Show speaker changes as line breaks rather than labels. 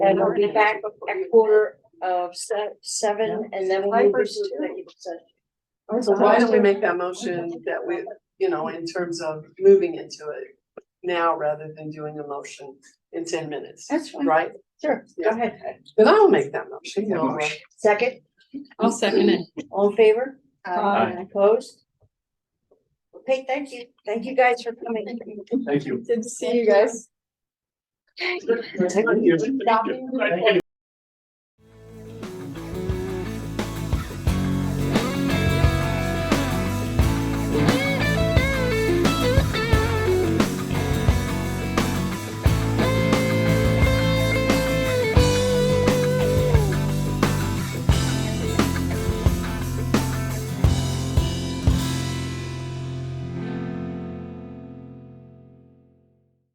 And we'll be back at quarter of se- seven and then we'll move this to executive session.
So why don't we make that motion that we, you know, in terms of moving into it now rather than doing a motion in ten minutes,
That's fine.
right?
Sure, go
Yeah.
ahead.
Then I'll make that motion. Laura.
Second,
I'll second it.
all in favor?
Aye.
Opposed? Okay, thank you. Thank you guys for coming.
Thank you.
Good to see you guys.
Thank you.